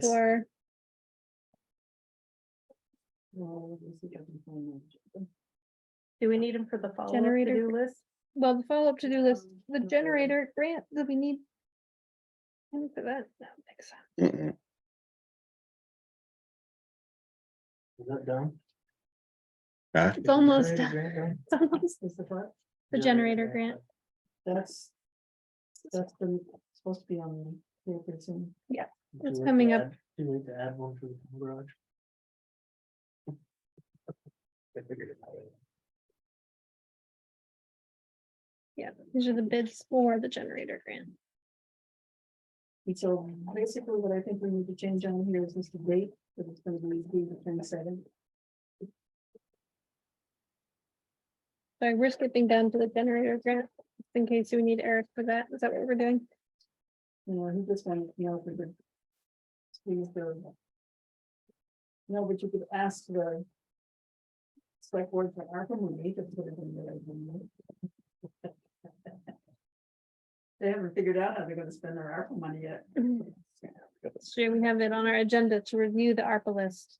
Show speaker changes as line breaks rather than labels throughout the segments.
for
Do we need them for the follow-up
Generator
to-do list?
Well, the follow-up to-do list, the
Okay.
generator grant that we need. And for that, no, thanks.
Mm-mm.
Is that done?
Huh?
It's almost
Is
done.
the
It's almost-
what?
The generator grant,
That's, that's been supposed to be on the paper soon.
Yeah,
Do
it's
we
coming
add-
up.
Do we need to add one for the garage? I figured it out.
yeah, these are the bids for the generator grant.
And So basically what I think we need to change on here is this date, that it's gonna be the twenty-seventh.
Sorry, we're skipping down to the generator grant, just in case we need Eric for that, is that what we're doing?
You know, he just wanted to know if we could. Squeeze the. No, but you could ask the. Select board for ARPA money to put it in there. They haven't figured out how they're gonna spend their ARPA money yet.
Should we have it on our agenda to review the ARPA list?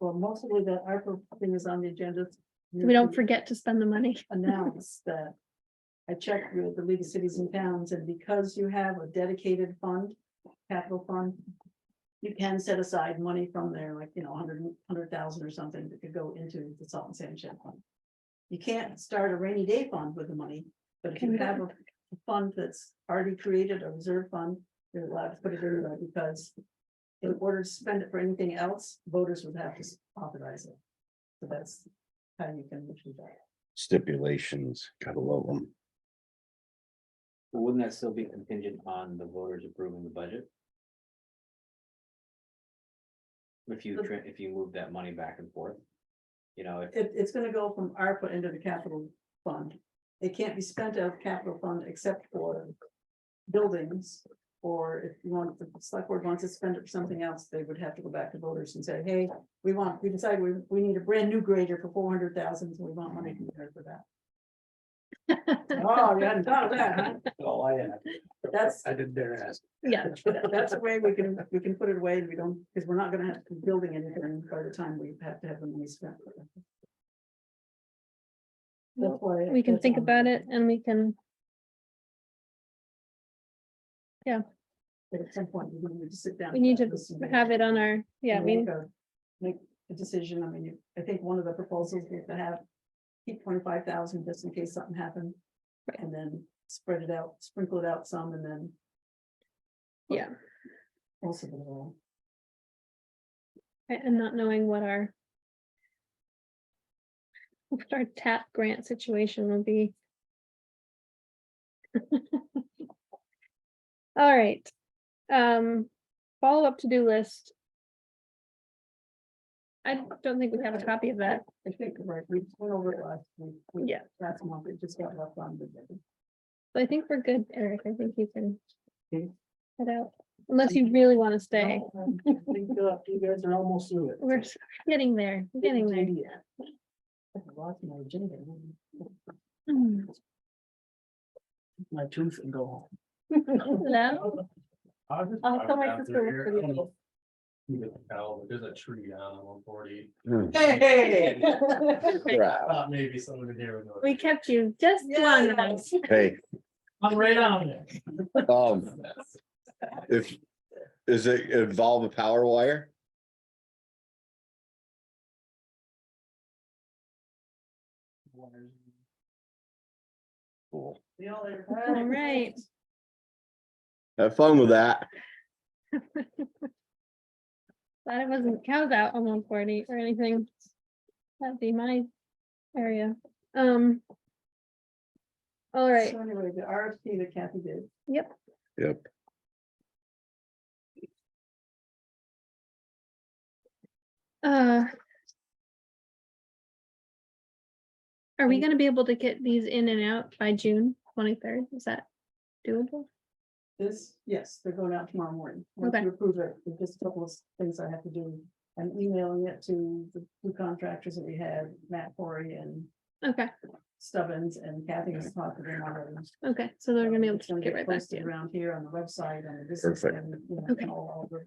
Well, mostly the ARPA thing is on the agenda.
so We don't forget to spend the money.
announce that. I checked with the League of Cities and Towns, and because you have a dedicated fund, capital fund. You can set aside money from there, like, you know, a hundred, hundred thousand or something that could go into the salt and sand shed fund. You can't start a rainy day fund with the money, but if you
Can
have a fund that's already created a reserve fund, you're allowed to put it in there because. In order to spend it for anything else, voters would have to authorize it. So that's how you can do that.
Stipulations, gotta love them.
But Wouldn't that still be contingent on the voters approving the budget? If you,
But-
tra- if you move that money back and forth, you know, if-
It, it's gonna go from ARPA into the capital fund. It can't be spent out of capital fund except for buildings. Or if you want, if the select board wants to spend it for something else, they would have to go back to voters and say, hey, we want, we decided we, we need a brand new grader for four hundred thousand, so we want money from there for that. Oh, you hadn't thought of that, huh?
Oh, I had.
That's,
I didn't dare ask.
Yeah,
that- that's a way we can, we can put it away and we don't, because we're not gonna have to be building anything by the time we have to have the money spent. for it. That's why.
we can
that's
think
on
about
there.
it and we can,
But at some point, we're gonna need to sit down.
we need to
and listen
have it on our, yeah,
and
we,
make a- Make a decision. I mean, you- I think one of the proposals is to have. Keep twenty-five thousand just in case something happened.
Right.
And then spread it out, sprinkle it out some and then.
yeah,
Also, the whole-
right, and not knowing what our what our TAP grant situation will be. All right, um, follow-up to-do list. I don't think we have a copy of that.
I think, right, we went over it last week. we-
Yeah.
Last month, it just got left on the.
So I think we're good, Eric. I think you can
Okay.
head out, unless you really want to stay.
No, um, I think, uh, You guys are almost through it.
We're s- getting there, we're getting there.
Yeah. I lost my agenda.
Hmm.
My tooth and go home.
Hello?
Oh.
I'll tell my sister look for the-
You can tell, but there's a tree on one forty,
Hey.
Wow.
thought maybe someone in here would know.
We kept you just long enough.
Hey,
I'm right on it.
um, if, is it involve a power wire? Cool.
We all are.
All right.
Have fun with that.
Glad it wasn't cows out on one forty or anything. That'd be my area. Um. All right,
So anyway, the RFP that Kathy did,
Yep.
uh. Are
Mm.
we gonna be able to get these in and out by June twenty-third? Is that doable?
this, yes, they're going out tomorrow morning. Once
Okay.
you approve it, there's just a couple of things I have to do. I'm emailing it to the two contractors that we had, Matt Corey and
Okay,
Stubbins, and Kathy has talked to them already.
okay, so they're gonna be able
It's
to get
get
right back to
posted
you.
Around here on the website and this is.
Perfect.
and, you know,
Okay.
all over.